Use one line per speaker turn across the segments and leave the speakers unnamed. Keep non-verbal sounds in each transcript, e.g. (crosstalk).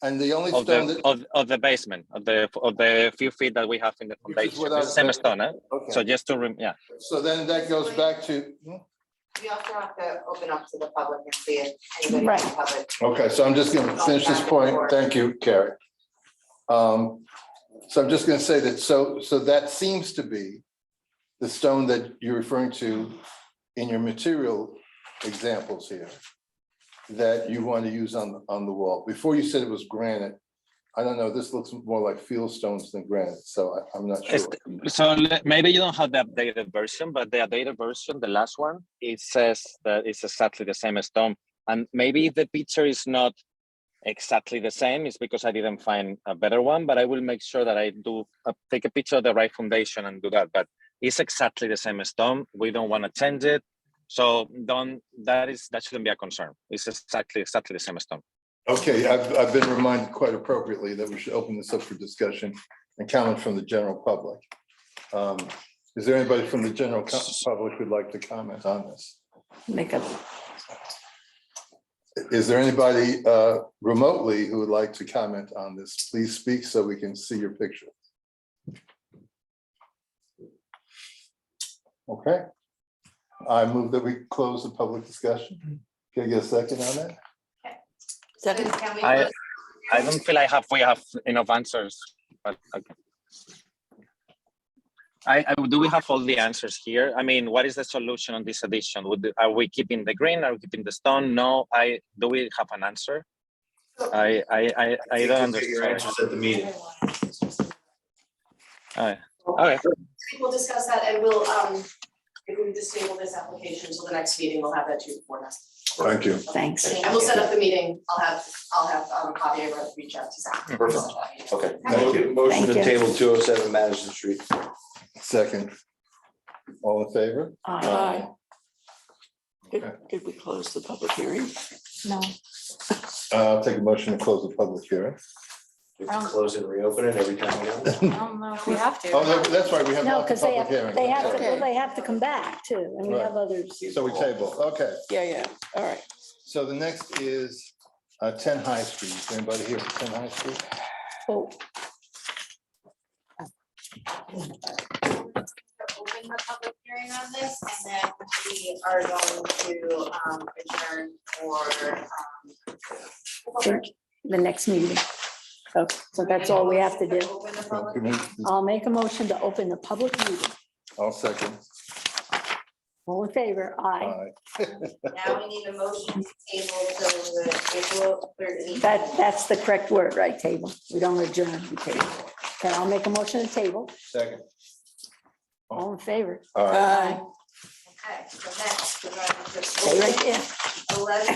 And the only
of
stone
the
that,
of, of the basement of the of the few feet that we have in the
is
foundation.
without
It's same
the-
stone, eh? So
okay,
just to rem- yeah.
so then that goes back to, hmm?
We also have to open up to the public and see if anybody in the
Right.
public.
okay, so I'm just gonna finish this point, thank you, Carrie. Um, so I'm just gonna say that, so, so that seems to be the stone that you're referring to in your material examples here that you want to use on, on the wall. Before you said it was granite, I don't know, this looks more like field stones than granite, so I, I'm not sure.
It's- so le- maybe you don't have the updated version, but the updated version, the last one, it says that it's exactly the same stone. And maybe if the picture is not exactly the same, it's because I didn't find a better one. But I will make sure that I do uh, take a picture of the right foundation and do that. But it's exactly the same stone. We don't want to change it. So don't that is that shouldn't be a concern. It's exactly exactly the same stone.
Okay, I've, I've been reminded quite appropriately that we should open this up for discussion and comment from the general public. Um, Is there anybody from the general co- public who'd like to comment on this?
Make a,
Is there anybody uh, remotely who would like to comment on this? Please speak so we can see your picture. Okay. I move that we close the public discussion. Can I get a second on that?
second,
Can we
I
close-
I don't feel I have we have enough answers, but okay. I, I do we have all the answers here? I mean, what is the solution on this addition? Would are we keeping the green? Are we keeping the stone? No, I do we have an answer? I I I, I don't understand.
at the meeting.
Okay,
We'll discuss that and we'll, um, if we just table this application until the next meeting, we'll have that to you before us.
Thank you.
thanks.
And we'll set up the meeting. I'll have, I'll have, um, Javier reach out to Zach.
Perfect. Okay.
Thank you.
Motion to
Thank you.
table two oh seven Madison Street.
Second. All in favor?
Aye.
Okay.
Did we close the public hearing? No.
Uh, I'll take a motion to close the public hearing.
We have to close and reopen it every time we go.
Oh,
don't know if we have to.
no, that's right, we have
No,
not the
because they
public hearing.
have, they have to,
Okay.
well, they have to come back too, and we
Right.
have others.
So we table, okay.
Yeah, yeah, all right.
So the next is uh, 10 High Street. Is anybody here for 10 High Street?
Oh,
Open the public hearing on this and then we are going to um adjourn for um.
the next meeting. So, so that's all we have to do.
Open the
Well,
public
can we-
I'll make a motion to open the public meeting.
I'll second.
All in favor? Aye.
Aye.
Now we need a motion to table till the April thirteenth.
That, that's the correct word, right, table? We don't adjourn, we table. Okay, I'll make a motion to table.
Second.
All in favor?
Aye.
Uh,
Okay, so next, we're going to.
Stay right there.
Eleven,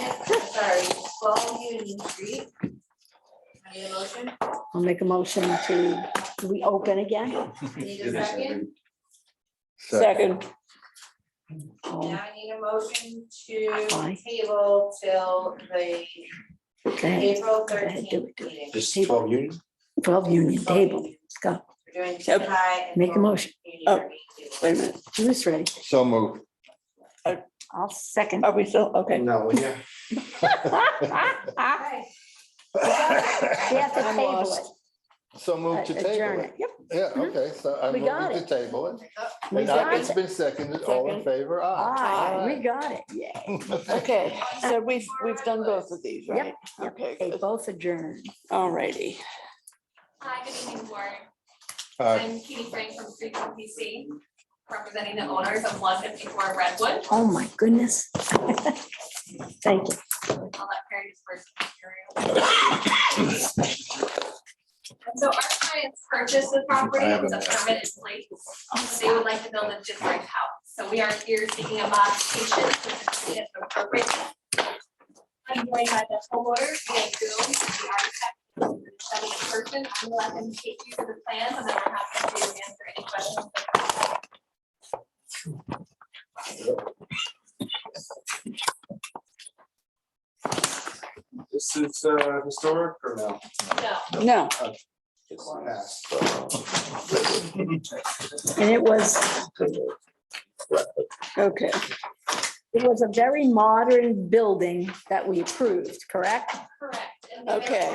sorry, twelve Union Street. I Need a motion?
I'll make a motion to, do we open again?
Need a second?
Oh,
Now I need a motion to
Aye.
table till the
Okay,
April
Go ahead, do
thirteenth
it, do it.
meeting.
This is twelve Union.
12 Union Table, let's go.
We're doing
Yep.
Shanghai and.
Make a
Golden
motion.
Union
Oh,
Street.
Wait a minute,
Who's ready?
So moved.
(laughs) I'll
Oh,
second.
are we still, okay,
No, yeah.
We
Okay,
have to
I'm
table
lost.
it. Uh,
So moved to
Adjourn
table it.
it. Yep.
Yeah, okay, so I'm
We got
moving to table it.
We
And now
got
It's
it.
been seconded. All in
Second.
favor?
Aye, we
Aye.
got it. Yeah.
(laughs)
okay, so we've, we've done both of these, right? Okay,
They
good.
both adjourned.
all righty.
Hi, good evening, board.
Aye.
I'm Katie Frank from Freedom PC, representing the owners of one fifty-four Redwood.
Oh, my goodness. (laughs) Thank you.
I'll let Perry disperse the material. And so our clients purchased the property,
I have
it's a
a-
permit in place, but they would like to build a different house. So we are here seeking a modification to complete it appropriately. I'm joined by the homeowner, Dan Gomes, the architect, and the study person. I'm gonna let them take you through the plans and then we're happy to answer any questions.
This is uh historic or no? Uh,
No,
No,
It's uh, past.
And it was,
okay,
it was a very modern building that we approved, correct?
correct. And the-
okay.